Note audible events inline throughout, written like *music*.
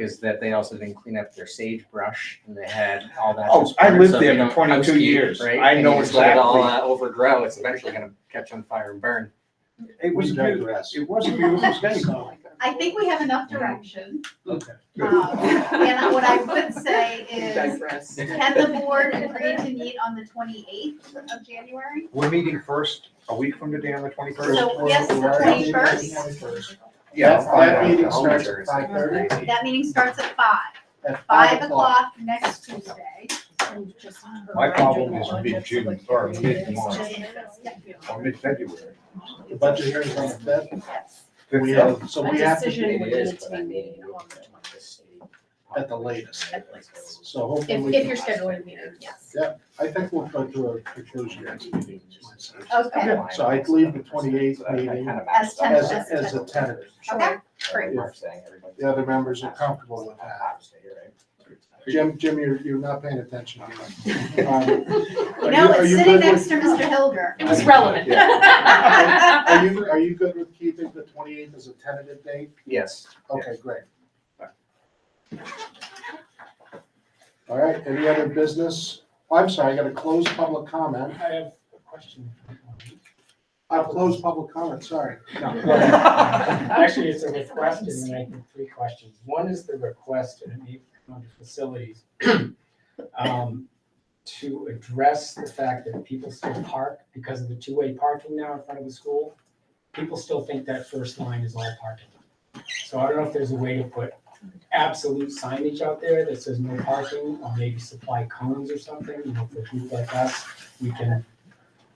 is that they also didn't clean up their sagebrush and they had all that. Oh, just I lived burnt up, there you for know, 22 housekeep, years. right? I And know you just let it all, exactly. uh, Overgrow, it's eventually gonna catch on fire and burn. It was a beautiful, digress. it was a *laughs* beautiful state. I think we have enough direction. Mm-hmm. Okay. Um, And what I would say is, digress. can the board agree to meet on the twenty-eighth of January? We're meeting first, a week from today on the twenty-first? So yes, the twenty-first, Yeah, I'll find that uh, out. meeting I'll starts make at five thirty. that meeting starts at five, At five o'clock next Tuesday. My problem is mid-June or mid-March Or mid-February. The budget hearing's on the fifth. Yes. We Yeah. have, so we have to be at the latest. So hopefully. If, we if can- you're scheduling a meeting, yes. I think we'll go to a conclusion next meeting. Okay, Yeah, so I leave the 28th meeting as As, tentative. as a tentative. Okay, great. The other members are comfortable with that. Jim, Jim, you're, you're not paying attention. Um, *laughs* you are know, are it's you sitting good next with- to Mr. Hilger. It was relevant. Are you, are you good with keeping the twenty-eighth as a tentative date? *laughs* *laughs* Yes. *laughs* Okay, great. All right, any other business? I'm sorry, I got to close public comment. I have a question. I've closed public comment, sorry. No, go ahead. Actually, it's a request and then I have three questions. One is the request and it may come under facilities. um, To address the fact that people still park because of the two-way parking now in front of the school. People still think that first line is all parking. So I don't know if there's a way to put absolute signage out there that says no parking or maybe supply cones or something, you know, for people like us. We can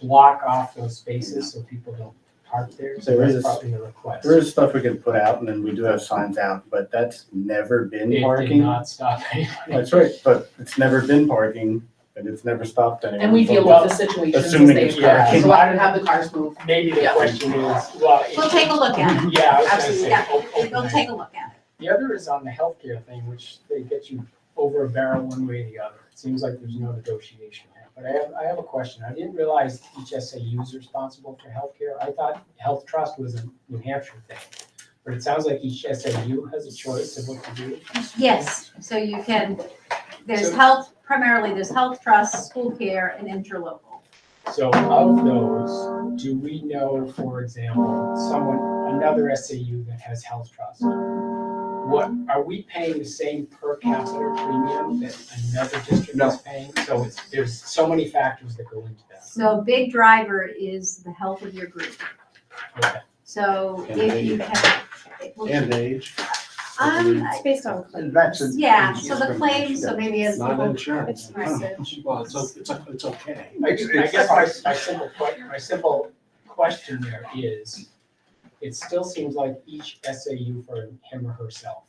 block off those spaces so people don't park there. So There that's is- probably the request. There is stuff we can put out and then we do have signs out, but that's never been It did parking. not stop anyone. That's right, but it's never been parking and it's never stopped anyone. And we from deal with the situations as Assuming they it's occur, correct. so I would have the cars move. *laughs* Maybe the Yeah. question is, well. it- We'll take a look at it. Yeah, I was gonna Absolutely, say, yeah. o- open We'll *laughs* it. take a look at it. The other is on the healthcare thing, which they get you over a barrel one way or the other. It seems like there's no negotiation. there. But I have, I have a question. I didn't realize HSAU is responsible for healthcare. I thought Health Trust was a New Hampshire thing. But it sounds like HSAU has a choice of what to do. Yes, so you can, there's So- health, primarily there's health trust, school care, and interlocal. So of those, do we know, for example, someone, another SAU that has health trust? What, are we paying the same per capita premium that another district No. is paying? So it's, there's so many factors that go into that. So a big driver is the health of your group. Okay. So And if you age. have. it will- And age. Um, And I- It's based on claims. That's. yeah, so the claims, so maybe as Not people, insurance. It's research. Well, it's, o- it's, o- it's okay. I I guess my, my simple que, my simple question there is, it still seems like each SAU for him or herself.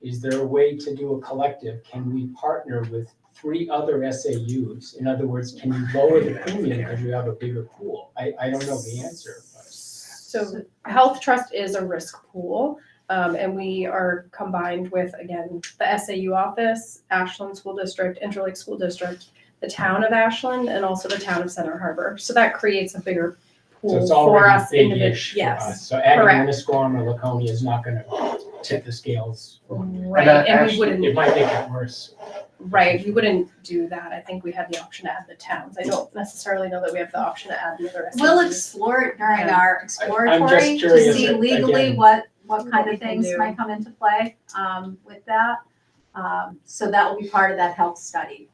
Is there a way to do a collective? Can we partner with three other SAUs? In other words, can you lower the premium because you have a bigger pool? I, I don't know the answer, but. So Health Trust is a risk pool, um, and we are combined with, again, the SAU office, Ashland School District, Interlake School District, the town of Ashland, and also the town of Center Harbor. So that creates a bigger So pool it's for already us big-ish individually. for Yes, us. So adding correct. Munisquam or Laconia is not gonna tip the scales. right, And that and we actually- wouldn't. It might make it worse. Right, we wouldn't do that. I think we have the option to add the towns. I don't necessarily know that we have the option to add the other. we'll SAUs. explore it during Yeah. our exploratory to curious, see like, legally again- what, what What kind we of can things do. might come into play, um, with that. Um, so that will be part of that health study.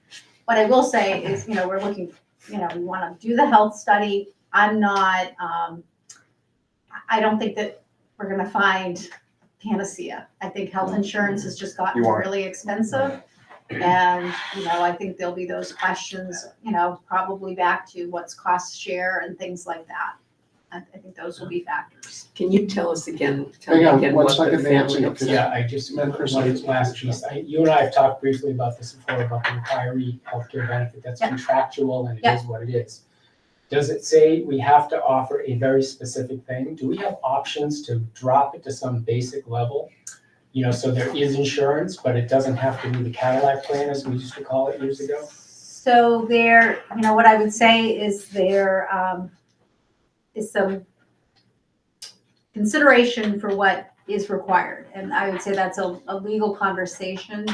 What I will say is, you know, we're looking, you know, we wanna do the health study. I'm not, um, I- I don't think that we're gonna find panacea. I think Mm-hmm. health insurance has just gotten You aren't. really expensive. And, you know, I think there'll be those questions, you know, probably back to what's cost share and things like that. I, I think those will be factors. Can you tell us again, tell me Hang on, again one what the second, Nancy. family of Just- Yeah, I just, Madam one President. last piece, I, you and I have talked briefly about this before, about the retiree healthcare benefit, that's Yeah. contractual and it Yeah. is what it is. Does it say we have to offer a very specific thing? Do we have options to drop it to some basic level? You know, so there is insurance, but it doesn't have to be the Cadillac plan, as we used to call it years ago? So there, you know, what I would say is there, um, is some consideration for what is required. And I would say that's a, a legal conversation